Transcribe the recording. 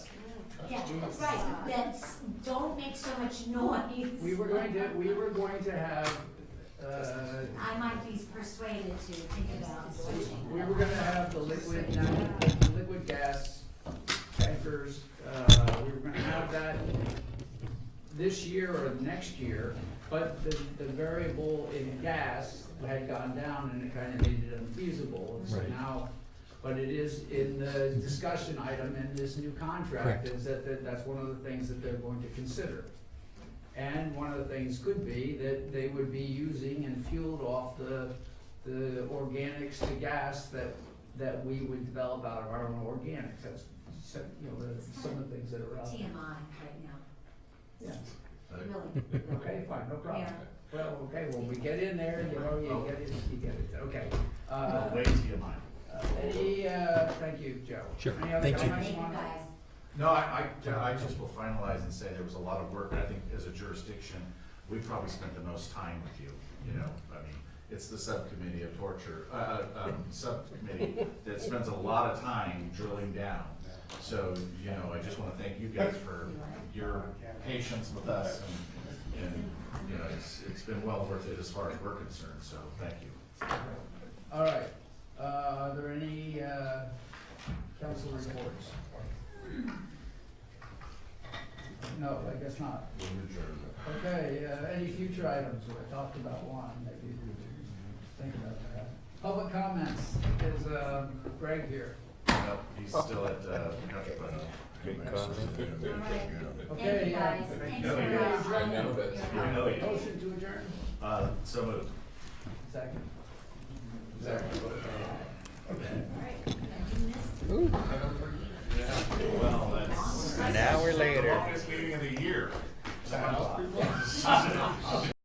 Jesus. Right, that's, don't make so much noise. We were going to, we were going to have, uh, I might be persuaded to think about switching. we were gonna have the liquid, the liquid gas tankers, uh, we were gonna have that this year or next year, but the, the variable in gas had gone down and it kinda made it unfeasible, and so Right. now, but it is in the discussion item in this new contract, Correct. is that, that, that's one of the things that they're going to consider. And one of the things could be that they would be using and fueled off the, the organics to gas that, that we would develop out of our own organics, that's, so- you know, the- some of the things that are out TMI there. right now, Yeah, really. okay, fine, no problem. Yeah. Well, okay, well, we get in there, you know, you get it, you get it, okay. Uh, Way to your mind. uh, any, uh, thank you, Joe. Sure, Any other thank you. comments Thank you on it? guys. No, I, I, I just will finalize and say there was a lot of work, I think as a jurisdiction, we probably spent the most time with you, you know, I mean, it's the subcommittee of torture, uh, uh, um, subcommittee that spends a lot of time drilling down. So, you know, I just wanna thank you guys for your patience with us and, and, you know, it's, it's been well worth it as far as we're concerned, so thank you. All right, uh, are there any, uh, council reports? No, I guess not. Okay, uh, any future items, we talked about one, maybe we should think about that. Public comments is, um, Greg here. Nope, he's still at, uh, Metropolitan. All right. Thank Okay, you uh, guys, thanks you. for. Yeah, uh, I know that. your I help. know you. motion to adjourn, Uh, so moved. second. Second. All right, I do miss Well, that's. An hour later. Longest meeting of the year.